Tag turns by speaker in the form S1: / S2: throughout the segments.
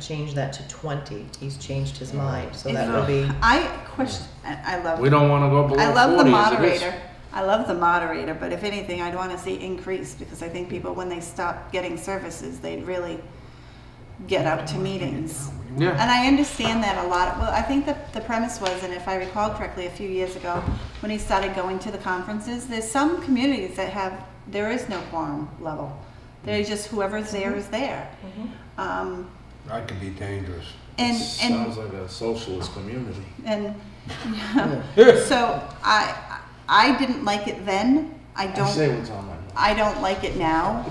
S1: change that to twenty. He's changed his mind, so
S2: Is
S1: that
S2: it-
S1: will be.
S2: I question, I I love.
S3: We don't wanna go below forty
S2: I
S3: as it is.
S2: love the moderator. I love the moderator, but if anything, I'd want to see increase because I think people, when they stop getting services, they'd really get out to meetings.
S3: Yeah,
S2: And I understand that a lot. Well, I think that the premise was, and if I recall correctly, a few years ago, when he started going to the conferences, there's some communities that have, there is no quorum level. They're just whoever's there is there. Um,
S4: That could be dangerous.
S2: and, and
S5: Sounds like a socialist community.
S2: and so I I didn't like it then. I
S5: I say
S2: don't
S5: what's on my mind.
S2: I don't like it now.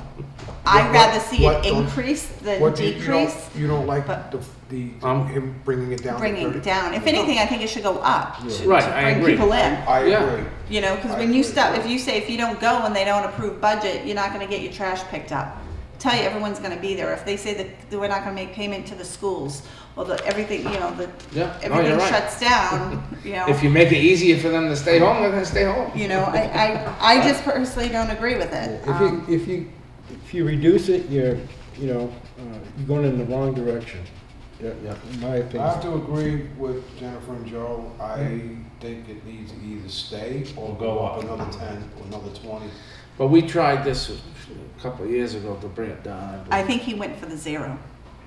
S2: I'd
S4: What-
S2: rather see
S4: what-
S2: it
S4: don't-
S2: increase than
S4: What do you- you don't-
S2: decrease,
S4: You don't like
S2: but-
S4: the, the,
S3: Um,
S4: him bringing it down to
S2: bringing it
S4: thirty?
S2: down. If anything, I think it should go up to- to
S3: Right, I
S2: bring
S3: agree.
S2: people in.
S4: I
S3: Yeah.
S4: agree.
S2: You know, because
S4: I
S2: when you
S4: agree.
S2: stop, if you say if you don't go and they don't approve budget, you're not going to get your trash picked up. Tell you everyone's going to be there. If they say that that we're not going to make payment to the schools, well, the, everything you know, the
S3: yeah, no,
S2: everything
S3: you're right.
S2: shuts down. You know,
S3: If you make it easier for them to stay home, they're gonna stay home.
S2: You know, I, I, I just personally don't agree with it.
S6: If you,
S2: Um,
S6: if you, if you reduce it, you're, you know, uh, you're going in the wrong direction. Yeah, yeah, in my
S4: I have
S6: opinion.
S4: to agree with Jennifer and Joe. I think it needs to either stay or go up another ten or another twenty.
S3: But we tried this a couple of years ago to bring it down.
S2: I think he went for the zero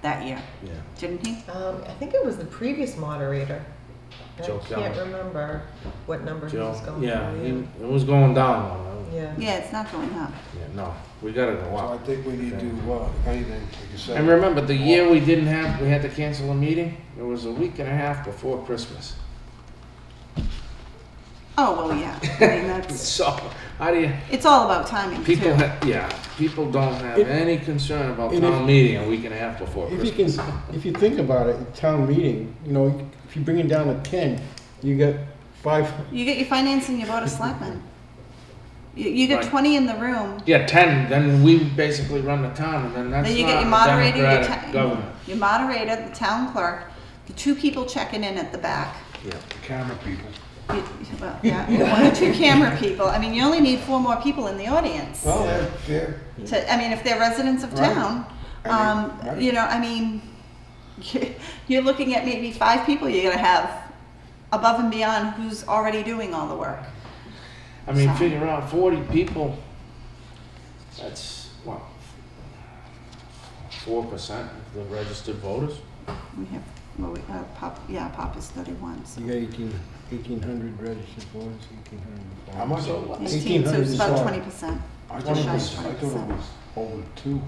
S2: that year,
S3: Yeah.
S2: didn't he?
S1: Um, I think it was the previous moderator. I
S3: Joe
S1: can't
S3: Kelly.
S1: remember what number he was
S3: Joe,
S1: going.
S3: yeah,
S1: for,
S3: he- it was going down.
S1: Yeah. Yeah.
S2: Yeah, it's not going up.
S3: Yeah, no, we gotta go
S4: So I
S3: up.
S4: think we need to, uh, if anything, like you said.
S3: And remember, the year we didn't have, we had to cancel a meeting, it was a week and a half before Christmas.
S2: Oh, well, yeah. I mean, that's,
S3: So, how do you,
S2: it's all about timing, too.
S3: people, ha- yeah, people don't have
S6: If-
S3: any concern about
S6: and
S3: town
S6: if-
S3: meeting a week and a half before
S6: If you
S3: Christmas.
S6: can, if you think about it, town meeting, you know, if you bring it down to ten, you got five,
S2: You get your financing, you vote a selectman. You, you get
S3: Right.
S2: 20 in the room,
S3: Yeah, ten, then we basically run the town, and then that's
S2: then you get your
S3: not a
S2: moderator, your,
S3: democratic
S2: ta-
S3: government.
S2: your moderator, the town clerk, the two people checking in at the back.
S3: Yeah.
S4: The camera people.
S2: You- well, yeah, one or two camera people. I mean, you only need four more people in the audience.
S4: Well, they're, they're,
S2: to, I mean, if they're residents of
S4: Right.
S2: town,
S4: I mean,
S2: um,
S4: right.
S2: you know, I mean, you're looking at maybe five people you're gonna have above and beyond who's already doing all the work.
S3: I mean,
S2: So-
S3: figure out forty people, that's, what? Four percent of the registered voters?
S2: We have, well, we, uh, Pop, yeah, Pop is thirty-one, so.
S6: you got eighteen, eighteen hundred registered voters, eighteen hundred.
S4: how much?
S3: So
S4: I
S3: what?
S2: Eighteen, so
S6: 1,800
S2: it's
S6: is
S2: about
S6: all.
S2: twenty percent.
S4: thought it
S2: Shy
S4: was, I thought it
S2: 20%.
S4: was over two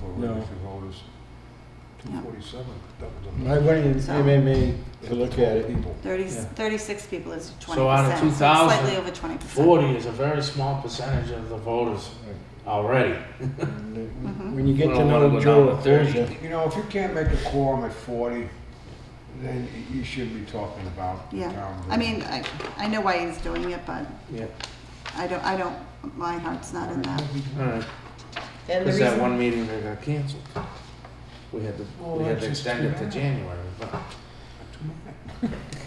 S4: for
S6: No.
S4: registered voters. Two forty-seven, that was a.
S6: I went in
S2: So-
S6: MMA to look at it.
S4: People.
S2: Thirty,
S3: Yeah.
S2: thirty-six people is twenty
S3: So out of
S2: percent,
S3: 2,000,
S2: slightly over twenty percent.
S3: Forty is a very small percentage of the voters already.
S6: And, uh, When you get
S3: Well,
S6: to
S3: I wanna
S6: know
S3: go
S6: Joe,
S3: down to 30.
S6: Rosa,
S4: You know, if you can't make a quorum at forty, then y- you shouldn't be talking about the
S2: Yeah,
S4: town.
S2: I mean, I, I know why he's doing it, but
S3: Yeah.
S2: I don't, I don't, my heart's not in that.
S1: And
S3: Alright,
S1: the
S3: cause
S1: reason
S3: that one meeting that got canceled. We had to, we had to extend it to January, but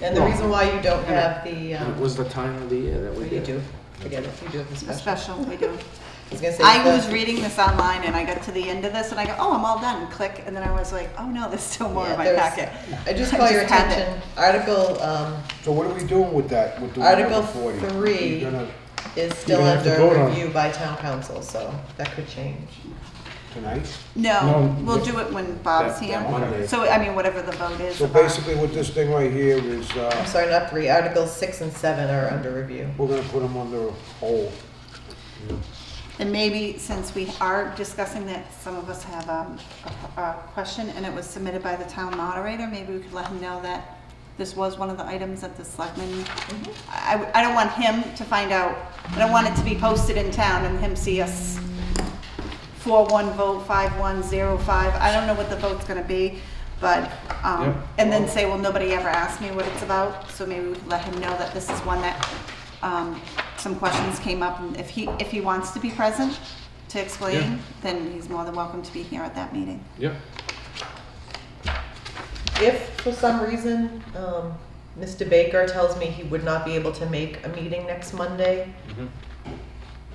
S1: and the reason why you don't have the
S3: it
S1: um,
S3: was the time of the year that
S1: well,
S3: we
S1: you
S3: did. it.
S1: do forget it you do have the
S2: A
S1: special.
S2: special we do.
S1: I was gonna say
S2: I
S1: the-
S2: was reading this online and I got to the end of this and I go, oh, I'm all done, click, and then I was like, oh no, there's still more
S1: Yeah,
S2: in my
S1: there's-
S2: packet.
S1: I just
S2: I
S1: call your
S2: just had it.
S1: attention, article, um,
S4: So what are we doing with that, with the one
S1: Article
S4: over forty?
S1: three.
S4: You're gonna,
S1: is still
S6: have to
S1: under
S6: vote on it.
S1: review by town council, so that could change.
S4: tonight?
S2: No,
S6: No,
S2: we'll
S6: yeah.
S2: do it when Bob's
S3: That- that
S2: here.
S3: Monday.
S2: So, I mean, whatever the vote is.
S4: So
S2: about-
S4: basically what this thing right here is,
S1: I'm
S4: uh,
S1: sorry, not three, articles six and seven are under review.
S4: we're gonna put them under hold.
S2: And maybe since we are discussing that, some of us have um, a, a question and it was submitted by the town moderator, maybe we could let him know that this was one of the items that the selectmen, I, I don't want him to find out, I don't want it to be posted in town and him see us four one vote, five one zero five, I don't know what the vote's gonna be, but,
S3: Yep.
S2: um, and then say, well, nobody ever asked me what it's about, so maybe we could let him know that this is one that, um, some questions came up, and if he, if he wants to be present to
S3: Yeah.
S2: explain, then he's more than welcome to be here at that meeting.
S3: Yep.
S1: If for some reason, um, Mr. Baker tells me he would not be able to make a meeting next Monday,
S3: Mhm.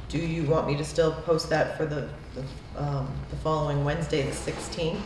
S1: do you want me to still post that for the, the, um, the following Wednesday, the sixteenth?